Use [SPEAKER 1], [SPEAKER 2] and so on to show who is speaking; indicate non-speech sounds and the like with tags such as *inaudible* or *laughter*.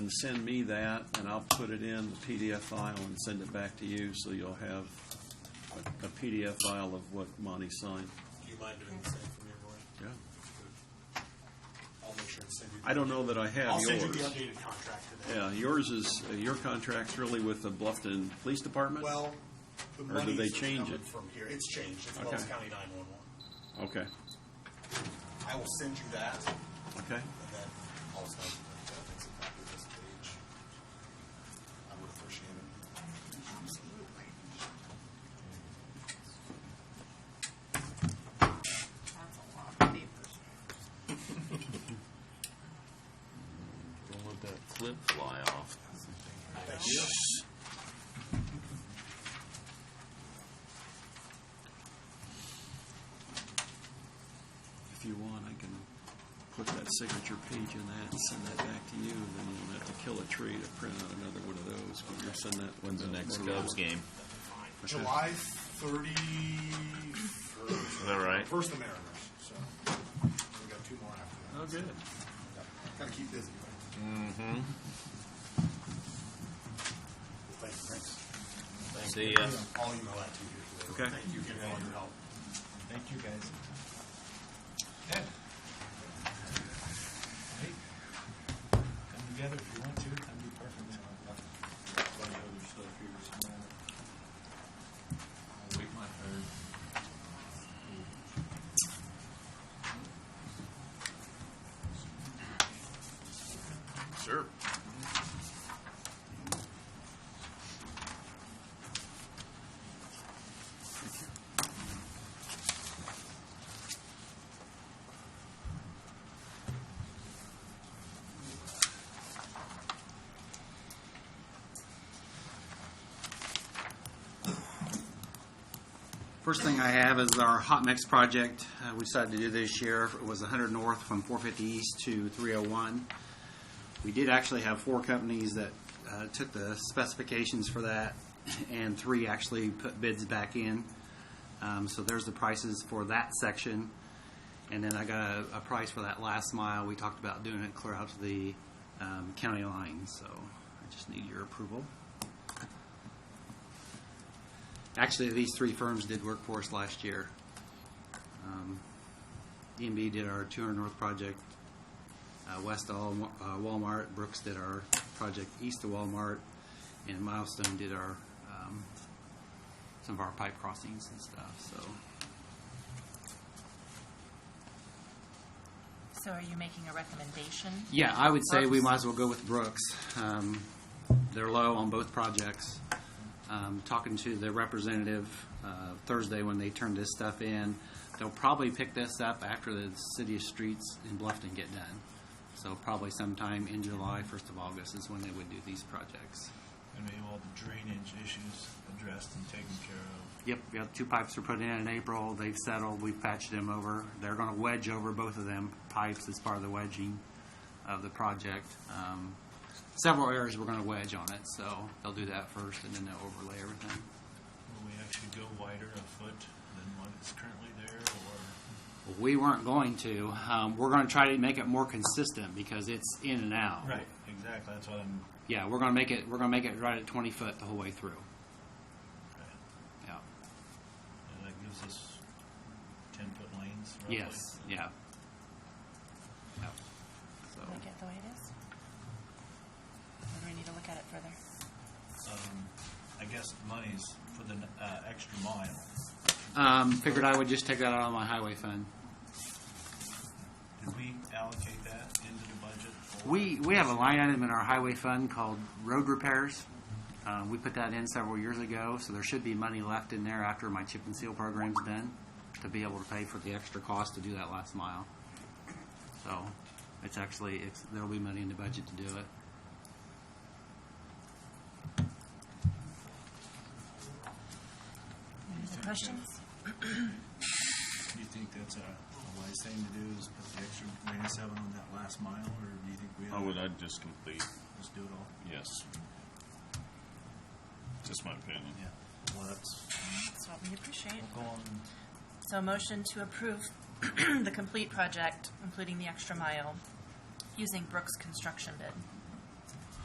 [SPEAKER 1] And send me that, and I'll put it in the PDF file and send it back to you, so you'll have a- a PDF file of what Monty signed.
[SPEAKER 2] Do you mind doing the same for me, Roy?
[SPEAKER 1] Yeah.
[SPEAKER 2] I'll make sure and send you.
[SPEAKER 1] I don't know that I have
[SPEAKER 2] I'll
[SPEAKER 1] yours.
[SPEAKER 2] send you the updated contract today.
[SPEAKER 1] Yeah, yours is, uh, your contract's really with the Bluffton Police Department?
[SPEAKER 2] Well, the
[SPEAKER 1] Or did they
[SPEAKER 2] money's
[SPEAKER 1] change
[SPEAKER 2] coming
[SPEAKER 1] it?
[SPEAKER 2] from here. It's changed. It's
[SPEAKER 1] Okay.
[SPEAKER 2] Wells County nine-one-one.
[SPEAKER 1] Okay,
[SPEAKER 2] I will send you that, and
[SPEAKER 1] okay.
[SPEAKER 2] then also, I'll make a copy of this page. I would appreciate it.
[SPEAKER 3] That's a lot of papers.
[SPEAKER 4] Don't let that clip fly off.
[SPEAKER 2] Thank you.
[SPEAKER 1] If you want, I can put that signature page in that and send that back to you, and then you don't have to kill a tree to print out another one of those, but you'll send that.
[SPEAKER 4] When's the next Cubs game?
[SPEAKER 2] July thirty-first. Is
[SPEAKER 4] that right?
[SPEAKER 2] First the Mariners, so we got two more
[SPEAKER 1] Oh,
[SPEAKER 2] after that.
[SPEAKER 4] good.
[SPEAKER 2] Gotta keep busy, right? Mm-hmm. Thanks, Prince.
[SPEAKER 4] See ya.
[SPEAKER 2] I'll email that to you today.
[SPEAKER 1] Okay.
[SPEAKER 2] Thank you again for all your help.
[SPEAKER 5] Thank you, guys. Okay. Hey, Come together if you want to, that'd be perfect. uh, I'll wait my turn.
[SPEAKER 4] Sure.
[SPEAKER 6] First thing I have is our hot mix project uh, we decided to do this year. It was 100 north from 450 east to 301. We did actually have four companies that uh, took the specifications for that, and three actually put bids back in. Um, So there's the prices for that section. And then I got a, a price for that last mile. We talked about doing it clear out to the um, county line, so I just need your approval. Actually, these three firms did work for us last year. Um, DMB did our 200 North project, uh, west of Wal- uh, Walmart, Brooks did our project east of Walmart, and Milestone did our, um, some of our pipe crossings and stuff, so.
[SPEAKER 3] So are you making a recommendation?
[SPEAKER 6] Yeah, I would say we might as well go with Brooks. Um, They're low on both projects. Um, Talking to the representative uh, Thursday when they turn this stuff in, they'll probably pick this up after the city streets in Bluffton get done. So probably sometime in July, first of August is when they would do these projects.
[SPEAKER 5] And we have all the drainage issues addressed and taken care of.
[SPEAKER 6] Yep, yeah, two pipes were put in in April, they've settled, we've patched them over. They're gonna wedge over both of them pipes as part of the wedging of the project. Um, Several areas we're gonna wedge on it, so they'll do that first and then they'll overlay everything.
[SPEAKER 5] Will we actually go wider a foot than what is currently there, or
[SPEAKER 6] We weren't going to, um, we're gonna try to make it more consistent because it's in and out.
[SPEAKER 5] Right, exactly, that's what I'm,
[SPEAKER 6] Yeah, we're gonna make it, we're gonna make it right at twenty foot the whole way through,
[SPEAKER 5] right.
[SPEAKER 6] yeah.
[SPEAKER 5] And that gives us ten-foot lanes roughly.
[SPEAKER 6] Yes, yeah. Yeah. So,
[SPEAKER 3] Like it the way it is? Or do we need to look at it further?
[SPEAKER 5] Um, I guess money's for the, uh, extra mile.
[SPEAKER 6] um, figured I would just take that out of my highway fund.
[SPEAKER 5] Did we allocate that into the budget? or-
[SPEAKER 6] We, we have a line item in our highway fund called road repairs. Uh, we put that in several years ago, so there should be money left in there after my chip and seal program's done to be able to pay for the extra cost to do that last mile. So it's actually, it's, there'll be money in the budget to do it.
[SPEAKER 3] Any other questions?
[SPEAKER 5] Do you think that's a a wise thing to do, is put the extra ninety-seven on that last mile, or do you think we
[SPEAKER 4] I would,
[SPEAKER 5] ought to
[SPEAKER 4] I'd just complete,
[SPEAKER 5] just do it all?
[SPEAKER 4] yes. Just my opinion.
[SPEAKER 5] Yeah, well, that's,
[SPEAKER 3] That's what we appreciate.
[SPEAKER 5] go on,
[SPEAKER 3] So a motion to approve *clears throat* the complete project, including the extra mile, using Brooks Construction bid.